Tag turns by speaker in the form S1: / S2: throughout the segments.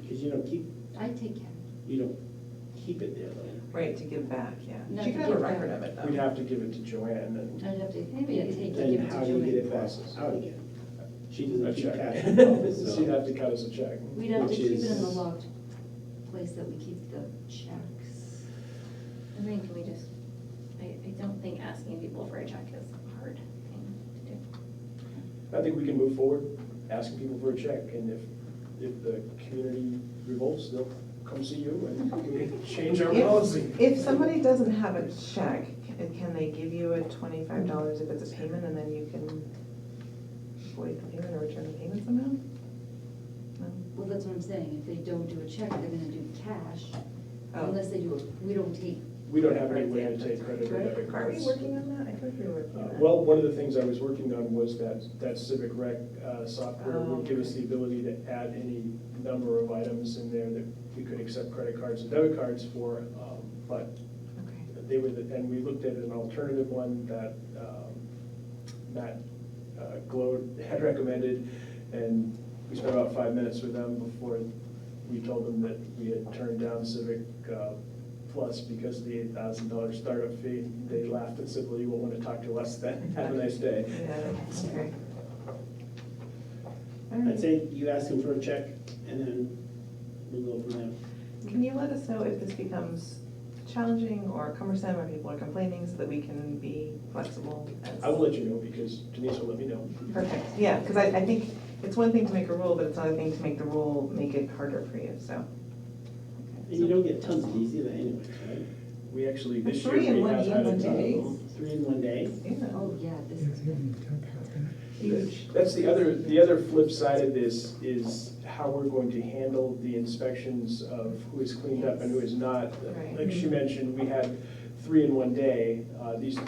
S1: because you don't keep,
S2: I take it.
S1: you don't keep it there though.
S3: Right, to give back, yeah.
S2: Not
S3: She
S2: to
S3: could have a
S2: give
S3: record
S2: back.
S3: of it,
S1: We'd
S3: though.
S1: have to give it to Joanne and
S2: I'd have to, maybe I'd take it, give
S1: then
S2: it
S1: how
S2: to
S1: do you get
S2: Joanne.
S1: it processed out again?
S4: She
S1: A
S4: doesn't keep
S1: check.
S4: cash.
S1: So She'd have to cut us a check.
S2: We'd have to
S4: Which
S2: keep it in the
S4: is-
S2: locked place that we keep the checks.
S5: I think we just, I, I don't think asking people for a check is a hard thing to do.
S1: I think we can move forward, asking people for a check, and if, if the community revolts, they'll come see you and change our policy.
S3: If, if somebody doesn't have a check, can can they give you a twenty-five dollars if it's a payment and then you can void the payment or return the payment somehow? No?
S2: Well, that's what I'm saying, if they don't do a check, they're gonna do cash,
S3: Oh.
S2: unless they do, a- we don't take,
S1: We don't have any way to take credit or debit
S3: Are we
S1: cards.
S3: working on that? I thought we were working
S1: Uh,
S3: on that.
S1: Well, one of the things I was working on was that, that Civic Rec uh, software
S3: Oh,
S1: would give us the ability to add any number of items in there that we could accept credit cards and debit cards for, um, but
S3: Okay.
S1: they were, the- and we looked at an alternative one that um, Matt uh, Glode had recommended, and we spent about five minutes with them before we told them that we had turned down Civic uh, Plus because of the eight thousand dollar startup fee. They laughed and said, well, you won't want to talk to us then, have a nice day.
S3: Yeah, okay. All
S4: I'd
S3: right.
S4: say you ask them for a check and then we'll go from there.
S3: Can you let us know if this becomes challenging or cumbersome or people are complaining so that we can be flexible as?
S1: I will let you know because Denise will let me know.
S3: Perfect, yeah, because I, I think it's one thing to make a rule, but it's another thing to make the rule make it harder for you, so.
S4: And you don't get tons of these either anyway, right?
S1: We actually, this
S3: Three
S1: year,
S3: in
S1: we
S3: one
S1: have had.
S3: evening, two
S1: uh,
S3: days.
S4: Three in one day.
S3: Yeah,
S2: oh, yeah, this
S6: Yeah,
S2: is good.
S6: even ten thousand.
S3: huge.
S1: That's the other, the other flip side of this is how we're going to handle the inspections of who is cleaned up and who is not.
S3: Right.
S1: Like she mentioned, we had three in one day. Uh, These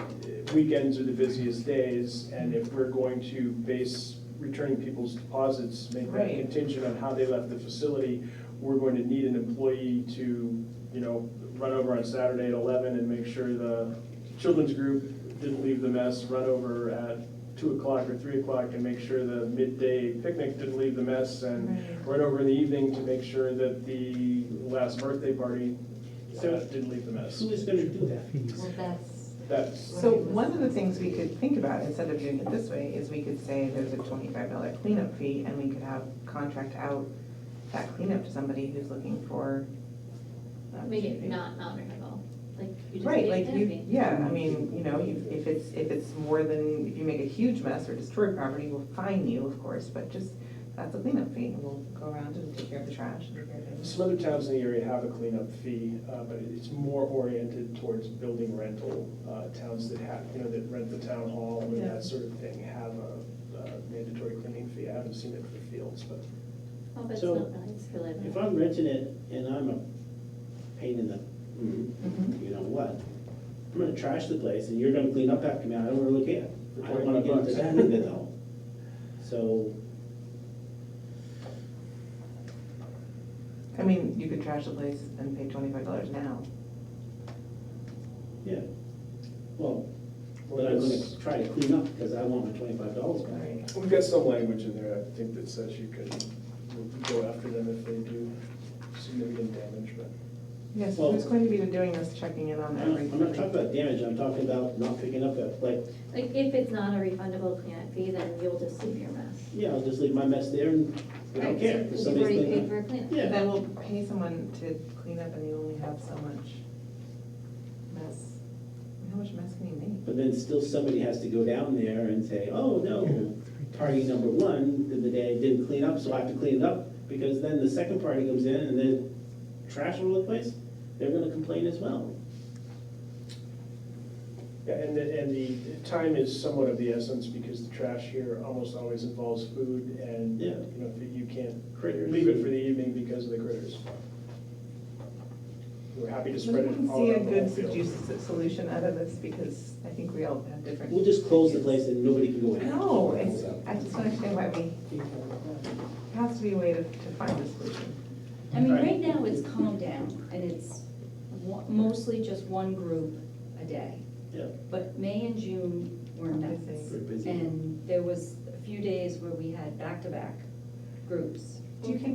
S1: weekends are the busiest days, and if we're going to base returning people's deposits, make that
S3: Right.
S1: contingent on how they left the facility, we're going to need an employee to, you know, run over on Saturday at eleven and make sure the children's group didn't leave the mess, run over at two o'clock or three o'clock and make sure the midday picnic didn't leave the mess, and
S3: Right.
S1: run over in the evening to make sure that the last birthday party uh,
S4: So-
S1: didn't leave the mess.
S4: Who is gonna do that?
S6: Fees.
S2: Well, that's,
S1: That's,
S3: So one of the things we could think about, instead of doing it this way, is we could say there's a twenty-five dollar cleanup fee, and we could have contract out that cleanup to somebody who's looking for. uh, an
S5: Make it
S3: opportunity.
S5: not honorable, like you just
S3: Right,
S5: pay
S3: like
S5: the
S3: you,
S5: fee.
S3: yeah, I mean, you know, you- if it's, if it's more than, if you make a huge mess or destroy property, we'll fine you, of course, but just, that's a cleanup fee, and we'll go around and take care of the trash and take care of things.
S1: some other towns in the area have a cleanup fee, uh, but it's more oriented towards building rental. Uh, Towns that have, you know, that rent the town hall and
S3: Yeah.
S1: that sort of thing have a uh, mandatory cleaning fee. I haven't seen it for fields, but
S5: Oh, but it's
S4: So,
S5: not nice to live in.
S4: If I'm renting it and I'm a pain in the,
S1: Mm-hmm.
S3: Mhm.
S4: you know what? I'm gonna trash the place and you're gonna clean up after me, I don't really care.
S1: For
S4: I don't wanna get into
S1: 25
S4: that either though. So,
S3: I mean, you could trash the place and pay twenty-five dollars now.
S4: yeah, well,
S1: Well,
S4: but I'm
S1: that's-
S4: gonna try to clean up because I want my twenty-five dollars back.
S3: Right.
S1: we've got some language in there, I think, that says you can go after them if they do significant damage, but.
S3: Yes,
S4: Well-
S3: who's going to be doing this, checking in on
S4: I'm not-
S3: everything?
S4: I'm not talking about damage, I'm talking about not picking up a, like,
S5: Like, if it's not a refundable cleanup fee, then you'll just leave your mess.
S4: yeah, I'll just leave my mess there and I don't
S5: Right,
S4: care.
S5: so
S4: if
S5: You've
S4: somebody's
S5: already
S4: cleaning
S5: paid
S4: up.
S5: for a cleanup.
S4: Yeah.
S3: Then we'll pay someone to clean up and you only have so much mess. I mean, How much mess can you make?
S4: But then still somebody has to go down there and say, oh, no, party number one did the day, didn't clean up, so I have to clean it up. Because then the second party comes in and then trash all over the place, they're gonna complain as well.
S1: Yeah, and the, and the time is somewhat of the essence because the trash here almost always involves food and, you
S4: Yeah.
S1: know, you can't
S4: Critters.
S1: leave it for the evening because of the critters. We're happy to spread it
S3: Let me
S1: all
S3: see a
S1: around the whole
S3: good
S1: field.
S3: seduce- solution out of this because I think we all have different.
S4: We'll just close the place and nobody can go in.
S3: No, it's, I just don't understand why we, there has to be a way to, to find a solution.
S5: I mean,
S4: Right.
S5: right now, it's calmed down, and it's wa- mostly just one group a day.
S4: Yeah.
S2: but May and June were nuts.
S4: Very busy.
S2: And there was a few days where we had back-to-back groups.
S3: Do you think